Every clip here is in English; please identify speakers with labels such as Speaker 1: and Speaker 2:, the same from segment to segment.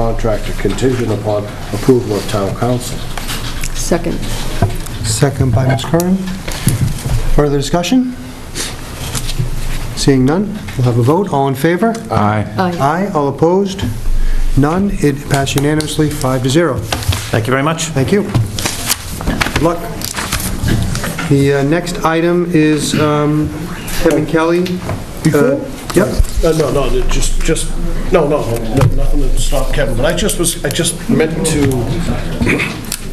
Speaker 1: contractor contingent upon approval of town council.
Speaker 2: Second.
Speaker 3: Second by Ms. Curran. Further discussion? Seeing none, we'll have a vote. All in favor?
Speaker 4: Aye.
Speaker 2: Aye.
Speaker 3: Aye. All opposed? None. It passed unanimously, five to zero.
Speaker 4: Thank you very much.
Speaker 3: Thank you. Good luck. The uh, next item is um, Kevin Kelly. Uh, Yep.
Speaker 1: Uh, No, no, it just, just, no, no, no, nothing to stop Kevin, but I just was, I just meant to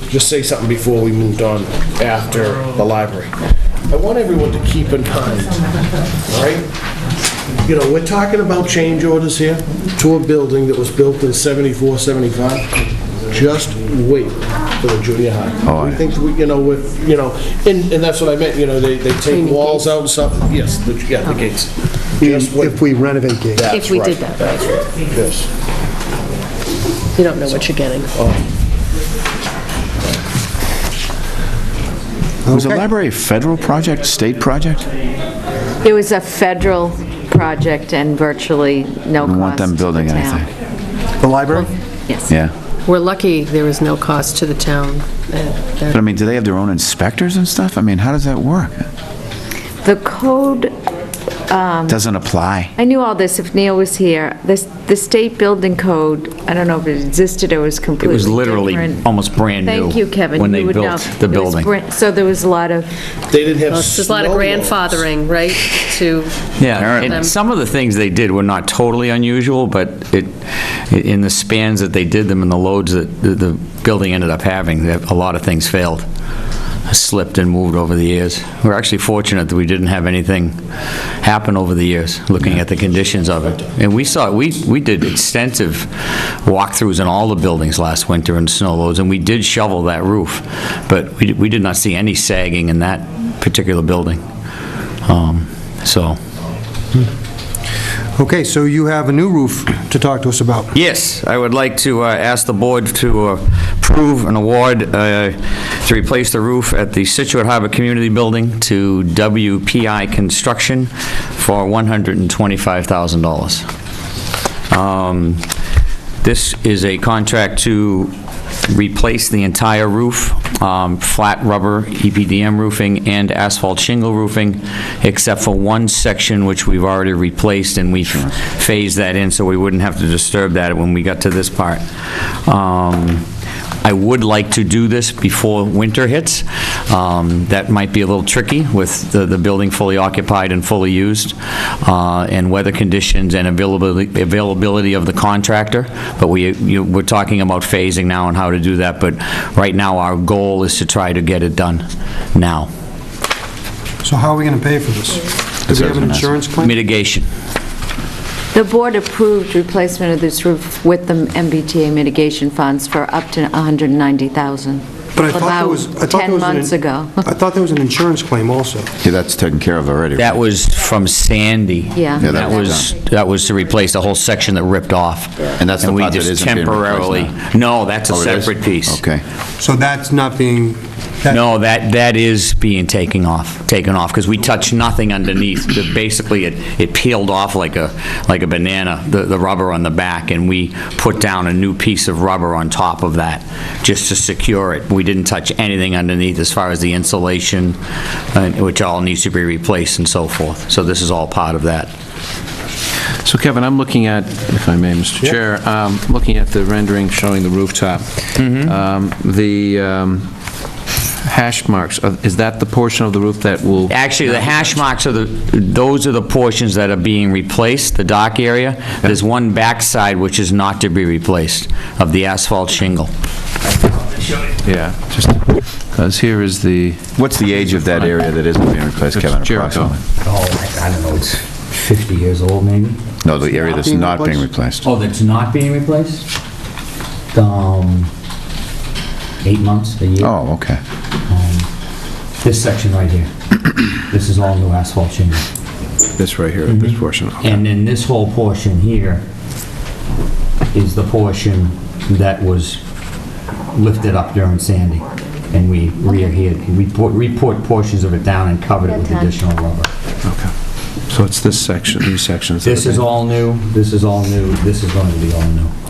Speaker 1: just say something before we moved on after the library. I want everyone to keep in mind, all right? You know, we're talking about change orders here to a building that was built in 74, 75. Just wait for the junior
Speaker 3: Oh,
Speaker 1: high. We think, we, you know, with, you know, and, and that's what I meant, you know, they, they take walls out and stuff, yes, the- yeah, the gates. Just wait.
Speaker 3: If we renovate Gate.
Speaker 2: If we did that, right.
Speaker 1: Yes.
Speaker 2: You don't know what you're getting.
Speaker 4: Was the library a federal project, state project?
Speaker 5: It was a federal project and virtually no cost to the
Speaker 4: I want them building
Speaker 5: town.
Speaker 4: anything.
Speaker 3: The library?
Speaker 5: Yes.
Speaker 4: Yeah.
Speaker 2: We're lucky there was no cost to the town. Uh,
Speaker 4: But I
Speaker 2: there-
Speaker 4: mean, do they have their own inspectors and stuff? I mean, how does that work?
Speaker 5: The code,
Speaker 4: Doesn't apply.
Speaker 5: I knew all this if Neil was here. This, the state building code, I don't know if it existed or was
Speaker 6: It
Speaker 5: completely
Speaker 6: was
Speaker 5: different.
Speaker 6: literally almost brand new.
Speaker 5: Thank you, Kevin.
Speaker 6: When
Speaker 5: You
Speaker 6: they
Speaker 5: would know.
Speaker 6: built the
Speaker 5: It was
Speaker 6: building.
Speaker 5: bran- So there was a lot of,
Speaker 1: They didn't have
Speaker 2: There's a lot of
Speaker 1: snow
Speaker 2: grandfathering, right, to...
Speaker 6: Yeah,
Speaker 2: Um,
Speaker 6: and some of the things they did were not totally unusual, but it, in the spans that they did them and the loads that the- the building ended up having, that a lot of things failed, slipped and moved over the years. We're actually fortunate that we didn't have anything happen over the years, looking at the conditions of it. And we saw, we, we did extensive walkthroughs in all the buildings last winter in snow loads, and we did shovel that roof, but we, we did not see any sagging in that particular building. Um, So,
Speaker 3: Okay, so you have a new roof to talk to us about.
Speaker 6: Yes, I would like to uh, ask the board to uh, approve an award uh, to replace the roof at the Situate Harbor Community Building to WPI Construction for $125,000. Um, This is a contract to replace the entire roof, um, flat rubber, E EPDM roofing, and asphalt shingle roofing, except for one section which we've already replaced, and we phased that in so we wouldn't have to disturb that when we got to this part. Um, I would like to do this before winter hits. Um, That might be a little tricky with the the building fully occupied and fully used, uh, and weather conditions and availability availability of the contractor, but we, you- we're talking about phasing now and how to do that, but right now, our goal is to try to get it done now.
Speaker 3: So how are we going to pay for this? Do we have an insurance claim?
Speaker 6: Mitigation.
Speaker 5: the board approved replacement of this roof with the MBTA mitigation funds for up to 190,000.
Speaker 3: But I thought there was, I
Speaker 5: About
Speaker 3: thought there
Speaker 5: 10
Speaker 3: was an-
Speaker 5: months ago.
Speaker 3: I thought there was an insurance claim also.
Speaker 4: Yeah, that's taken care of already.
Speaker 6: That was from Sandy.
Speaker 5: Yeah. Yeah, that
Speaker 6: That
Speaker 4: was
Speaker 6: was, that was to replace the whole section that ripped off.
Speaker 4: And that's the
Speaker 6: we
Speaker 4: part that
Speaker 6: just
Speaker 4: isn't being replaced
Speaker 6: temporarily- No, that's a
Speaker 4: Oh, it is?
Speaker 6: separate piece.
Speaker 4: Okay.
Speaker 3: So that's not being, that-
Speaker 6: No, that, that is being taken off, taken off, because we touched nothing underneath. The- Basically, it, it peeled off like a, like a banana, the, the rubber on the back, and we put down a new piece of rubber on top of that, just to secure it. We didn't touch anything underneath as far as the insulation, uh, which all needs to be replaced and so forth. So this is all part of that.
Speaker 7: So Kevin, I'm looking at, if I may, Mr. Chair, um, looking at the rendering showing the rooftop. Um, The um, hash marks, uh, is that the portion of the roof that will?
Speaker 6: Actually, the hash marks are the, those are the portions that are being replaced, the dock area. There's one backside which is not to be replaced, of the asphalt shingle.
Speaker 7: Yeah, just, because here is the,
Speaker 4: What's the age of that area that isn't being replaced, Kevin,
Speaker 7: It's Jericho.
Speaker 4: approximately?
Speaker 6: Oh, I don't know, it's 50 years old, maybe?
Speaker 4: No, the area that's not being replaced.
Speaker 6: Oh, that's not being replaced? Um, eight months, a year?
Speaker 4: Oh, okay.
Speaker 6: This section right here. This is all new asphalt shingle.
Speaker 7: this right here,
Speaker 4: Mm-hmm.
Speaker 7: this portion.
Speaker 6: And then this whole portion here is the portion that was lifted up during Sandy, and we re-adhered, we poured- we poured portions of it down and covered it with additional rubber.
Speaker 7: Okay. So it's this section, these sections. that
Speaker 6: This
Speaker 7: are
Speaker 6: is
Speaker 7: being-
Speaker 6: all new, this is all new, this is going to be all new.